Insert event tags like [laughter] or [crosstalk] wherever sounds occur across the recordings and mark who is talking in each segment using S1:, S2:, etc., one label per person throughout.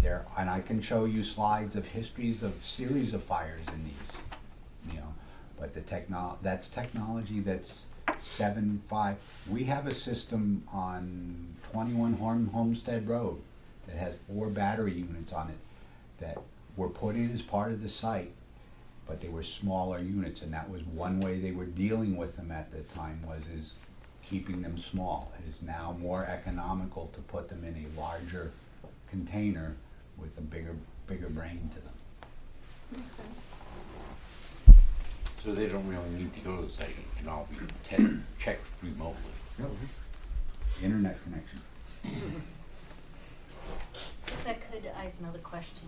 S1: there, and I can show you slides of histories of series of fires in these, you know. But the technol, that's technology that's seven, five, we have a system on twenty-one Horn Homestead Road that has four battery units on it that were put in as part of the site, but they were smaller units, and that was one way they were dealing with them at the time was is keeping them small. It is now more economical to put them in a larger container with a bigger, bigger brain to them.
S2: Makes sense.
S3: So they don't really need to go to the site, it can all be te- [clears throat] checked remotely.
S1: Internet connection.
S4: If I could, I have another question.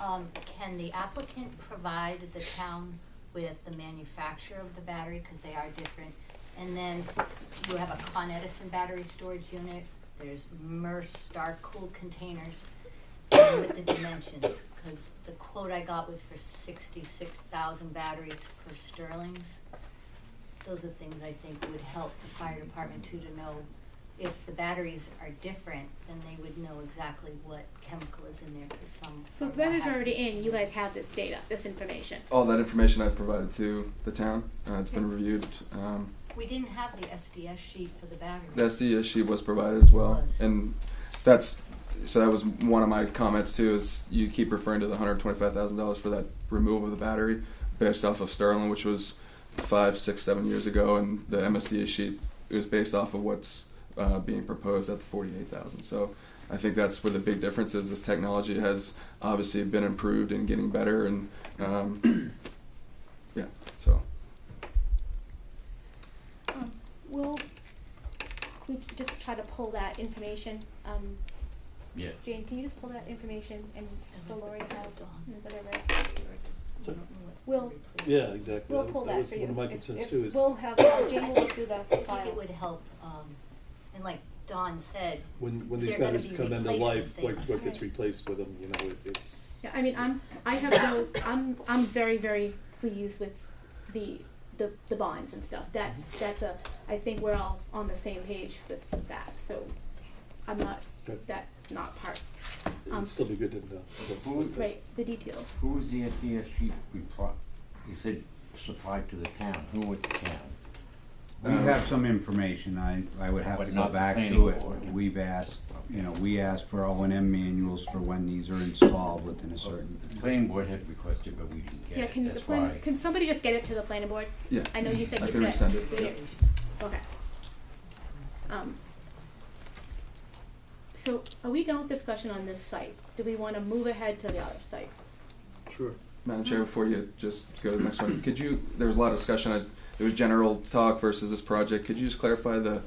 S4: Um, can the applicant provide the town with the manufacturer of the battery, because they are different? And then you have a Con Edison battery storage unit, there's MERS Star Cool containers and with the dimensions, because the quote I got was for sixty-six thousand batteries per Sterling's. Those are things I think would help the fire department too, to know if the batteries are different, then they would know exactly what chemical is in there, because some.
S2: So
S4: are
S2: that
S4: more
S2: is already
S4: hazardous.
S2: in. You guys have this data, this information.
S5: all that information I've provided to the town. Uh, it's been reviewed. Um,
S4: We didn't have the SDS sheet for the battery.
S5: the SD issue was provided as well,
S4: Was.
S5: and that's so that was one of my comments too. Is you keep referring to the hundred twenty-five thousand dollars for that removal of the battery based off of Sterling, which was five, six, seven years ago, and the MSD sheet is based off of what's uh, being proposed at the forty-eight thousand. So. I think that's where the big difference is. This technology has obviously been improved and getting better, and um, [clears throat] yeah, so.
S2: Um, we'll could we just try to pull that information. Um,
S3: Yeah.
S2: Jane, can you just pull that information and
S4: I
S2: the
S4: think
S2: Lori
S4: it's
S2: have
S4: gone.
S2: and whatever?
S4: We don't know what
S2: We'll-
S4: to
S6: Yeah, exactly.
S2: We'll pull that
S6: was
S2: for you.
S6: One of my
S2: If-
S6: concerns
S2: if
S6: too is
S2: we'll have Jane will look through the
S4: replace. I think
S2: file.
S4: it would help, um, and like Don said,
S6: when, when these
S4: they're gonna
S6: batteries
S4: be
S6: come end of
S4: replacing
S6: life, what,
S4: things.
S6: what gets
S2: Right.
S6: replaced with them, you know, it- it's,
S2: Yeah, I mean, I'm, I have no, I'm, I'm very, very pleased with the, the, the bonds and stuff. That's, that's a, I think we're all on the same page with that, so I'm not,
S6: Good.
S2: that's not part, Um,
S6: it'd still be good to know. what's-
S3: Who
S6: what's
S3: was
S6: the-
S2: right, the details.
S3: Who was the E SDSG reply, you said supplied to the town, who at the town?
S1: We
S5: Um,
S1: have some information, I, I would have to
S3: Uh, But
S1: go
S3: not the
S1: back to
S3: planning
S1: it.
S3: board.
S1: We've asked, you know, we asked for O and M manuals for when these are installed within a certain.
S3: The planning board had requested, but we didn't
S2: Yeah,
S3: get
S2: can
S3: it,
S2: the
S3: that's
S2: plan,
S3: why.
S2: can somebody just get it to the planning board?
S5: Yeah.
S2: I know you said
S5: I
S2: you
S5: can
S2: could.
S5: resend it.
S2: Yeah. Okay. Um, So are we done with discussion on this site? Do we wanna move ahead to the other site?
S6: Sure.
S5: Madam Chair, before you just go to the next one, could you, there was a lot of discussion, I- it was general talk versus this project, could you just clarify the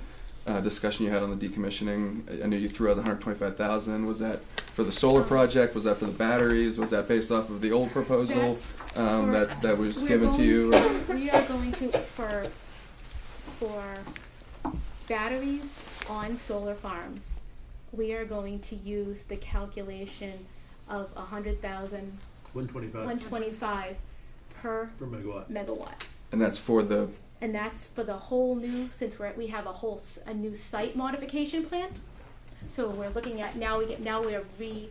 S5: uh, discussion you had on the decommissioning? I- I know you threw out the hundred twenty-five thousand, was that for the solar project, was that for the batteries, was that based off of the old proposal?
S2: That's
S5: Um,
S2: for-
S5: that, that was
S2: We're
S5: given to
S2: going
S5: you? uh,
S2: to- We are going to, for, for batteries on solar farms, we are going to use the calculation of a hundred thousand,
S6: One twenty-five
S2: one twenty-five per
S6: per megawatt.
S2: megawatt.
S5: And that's for the,
S2: And that's for the whole new, since we're, we have a whole, s- a new site modification plan. So we're looking at, now we get, now we're re,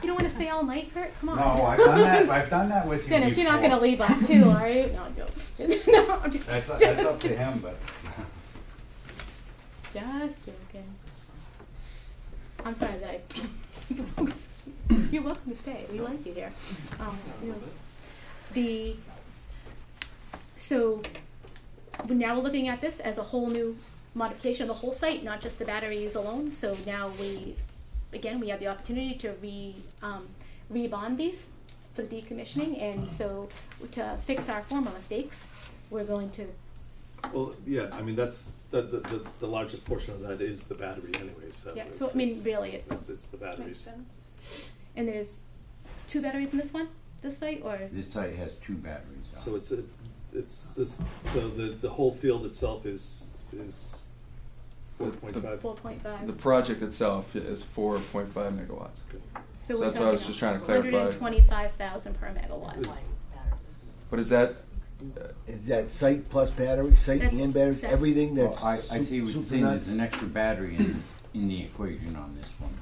S2: you don't wanna stay all night, Kurt, come on.
S1: No, I've done that,
S2: [laughs]
S1: I've done that with you before.
S2: Dennis, you're not gonna leave us too, are you? No, I'm joking. [laughs] No, I'm just,
S1: That's,
S2: just,
S1: that's up to him, but.
S2: just joking. I'm sorry that I. [laughs] You're welcome to stay, we like you here. Um, you know, The, so, we- now we're looking at this as a whole new modification of the whole site, not just the batteries alone, so now we, again, we have the opportunity to re, um, rebond these for the decommissioning, and so to fix our former mistakes, we're going to,
S6: Well, yeah, I mean, that's, the, the- the, the largest portion of that is the battery anyway, so.
S2: Yeah, so,
S6: it's-
S2: I mean,
S6: it's-
S2: really, it's-
S6: It's, it's the batteries.
S2: and there's two batteries in this one, this site, or?
S3: This site has two batteries on it.
S6: So it's, a- it's, this- so the, the whole field itself is, is
S5: The-
S6: four
S5: the-
S6: point five.
S2: Four point
S5: the
S2: five.
S5: project itself is four point five megawatts.
S2: So
S5: that's what I was just trying to clarify.
S2: Hundred and twenty-five thousand per megawatt.
S6: Is-
S5: But is that,
S7: Is that site plus battery, site
S2: That's-
S7: and batteries,
S2: that's-
S7: everything
S3: Well,
S7: that's
S3: Oh, I, I
S7: sup-
S3: see what you're
S7: super
S3: saying,
S7: nuts?
S3: there's an extra battery in, in the equation on this one.